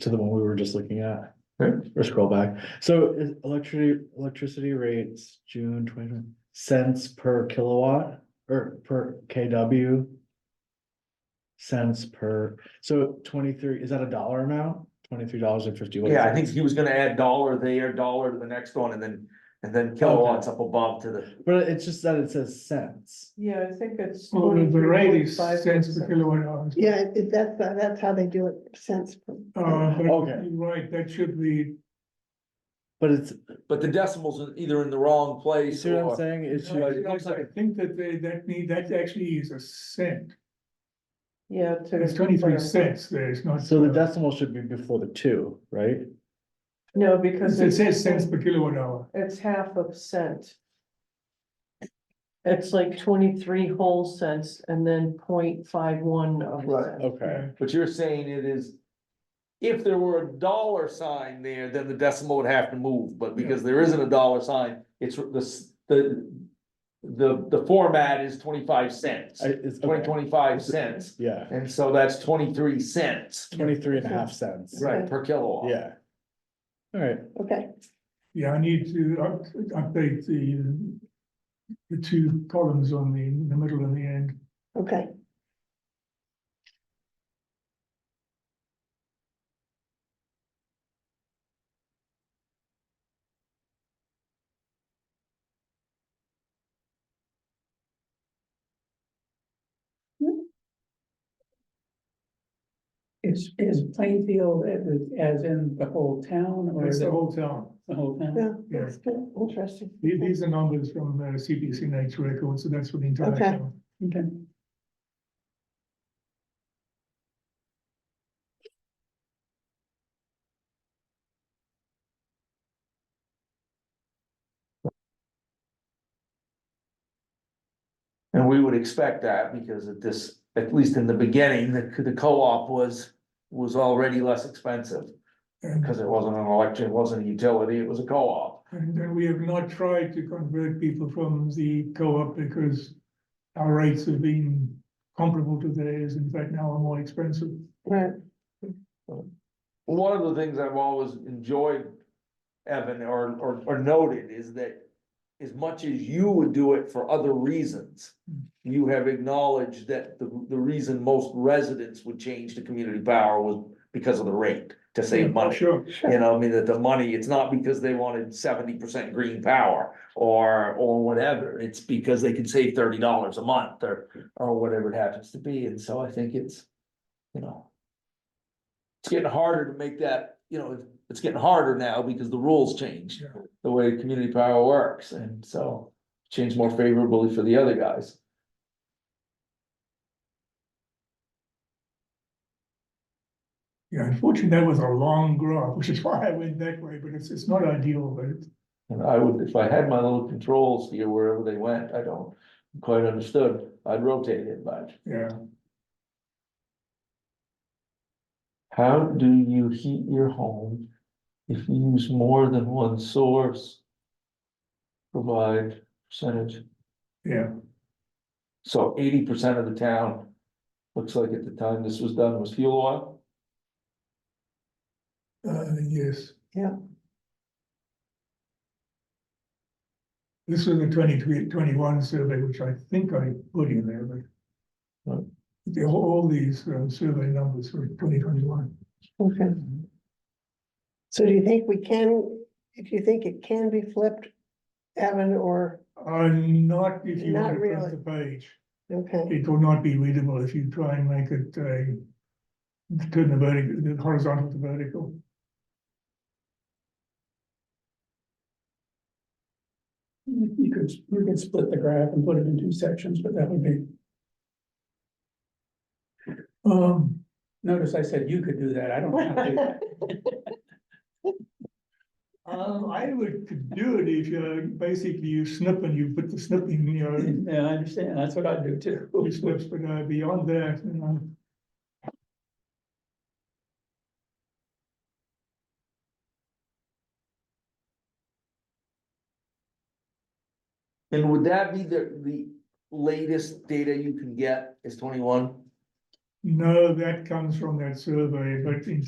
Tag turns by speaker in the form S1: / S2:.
S1: to the one we were just looking at.
S2: Right.
S1: Or scroll back. So is electricity, electricity rates, June twenty cents per kilowatt or per KW. Cents per, so twenty-three, is that a dollar amount? Twenty-three dollars and fifty.
S2: Yeah, I think he was gonna add dollar there, dollar to the next one, and then, and then kilowatts up above to the,
S1: But it's just that it says cents.
S3: Yeah, I think it's.
S4: Well, the the
S3: 43,
S4: rate is
S3: 45
S4: cents per
S3: percent.
S4: kilowatt hour.
S5: Yeah, it- it, that's, uh, that's how they do it since.
S4: Uh, but
S1: Okay.
S4: you're right, that should be,
S1: But it's,
S2: but the decimals are either in the wrong
S1: you
S2: place
S1: see what I'm
S2: or.
S1: saying? It's,
S2: Yeah.
S4: I I think that they, that need, that actually is a cent.
S3: Yeah. to-
S4: It's twenty-three cents, there is not.
S1: so the
S4: uh,
S1: decimal should be before the two, right?
S3: No, because
S4: It
S3: it's,
S4: says cents per kilowatt hour.
S3: it's half of cent. It's like twenty-three whole cents and then point five one of a
S2: Right.
S3: cent.
S1: Okay,
S2: But you're saying it is. If there were a dollar sign there, then the decimal would have to move, but because there isn't a dollar sign, it's the, s- the. The, the format is twenty-five cents,
S1: I, it's,
S2: twenty,
S1: okay,
S2: twenty-five cents,
S1: yeah,
S2: and so that's twenty-three cents.
S1: twenty-three and a half cents.
S2: Right, per kilowatt.
S1: Yeah. All right,
S5: Okay,
S4: Yeah, I need to up, update the, the two columns on the, the middle and the end.
S5: okay.
S6: Is, is Plainfield as- as in the whole town or
S4: That's
S6: is
S4: the
S6: it
S4: whole town.
S6: the whole town?
S5: Yeah, that's good, interesting.
S4: These, these are numbers from uh, CPC Nature Records, so that's for the entire
S5: Okay.
S4: town.
S6: Okay.
S2: And we would expect that because at this, at least in the beginning, the, the co-op was, was already less expensive.
S4: And
S2: Cause it wasn't an election, it wasn't a utility, it was a co-op.
S4: And then we have not tried to convert people from the co-op because our rates have been comparable to theirs, in fact, now are more expensive.
S5: Right,
S2: One of the things I've always enjoyed, Evan, or, or, or noted is that as much as you would do it for other reasons, you have acknowledged that the, the reason most residents would change to community power was because of the rate, to save money.
S4: Sure,
S2: You know, I mean, that the money, it's not because they wanted seventy percent green power or, or whatever. It's because they could save thirty dollars a month or, or whatever it happens to be. And so I think it's, you know. It's getting harder to make that, you know, it's getting harder now because the rules changed,
S4: Yeah.
S2: the way community power works. And so changed more favorably for the other guys.
S4: yeah, unfortunately, that was a long graph, which is why I went that way, but it's, it's not ideal, but it's-
S2: And I would, if I had my little controls here wherever they went, I don't quite understood. I'd rotate it, but.
S4: yeah.
S2: How do you heat your home if you use more than one source? Provide percentage,
S4: Yeah,
S2: so eighty percent of the town, looks like at the time this was done was fuel oil.
S4: uh, yes.
S5: Yeah.
S4: This was the 2021 survey, which I think I put in there, but.
S2: Right.
S4: The, all these uh, survey numbers for twenty twenty-one.
S5: okay. So do you think we can, if you think it can be flipped, Evan, or,
S4: Uh, not if you
S5: Not
S4: want to
S5: really.
S4: flip the page.
S5: okay,
S4: It will not be readable if you try and make it uh turn the vertical, the horizontal to vertical.
S6: You you could, you could split the graph and put it in two sections, but that would be,
S4: Um,
S6: notice I said you could do that. I don't want to do that.
S4: um, I would could do it if you, basically you snip and you put the snipping, you know,
S6: Yeah, I understand. That's what I do too.
S4: you slips, but uh, beyond that, you know.
S2: And would that be the, the latest data you can get is twenty-one?
S4: No, that comes from that survey, but in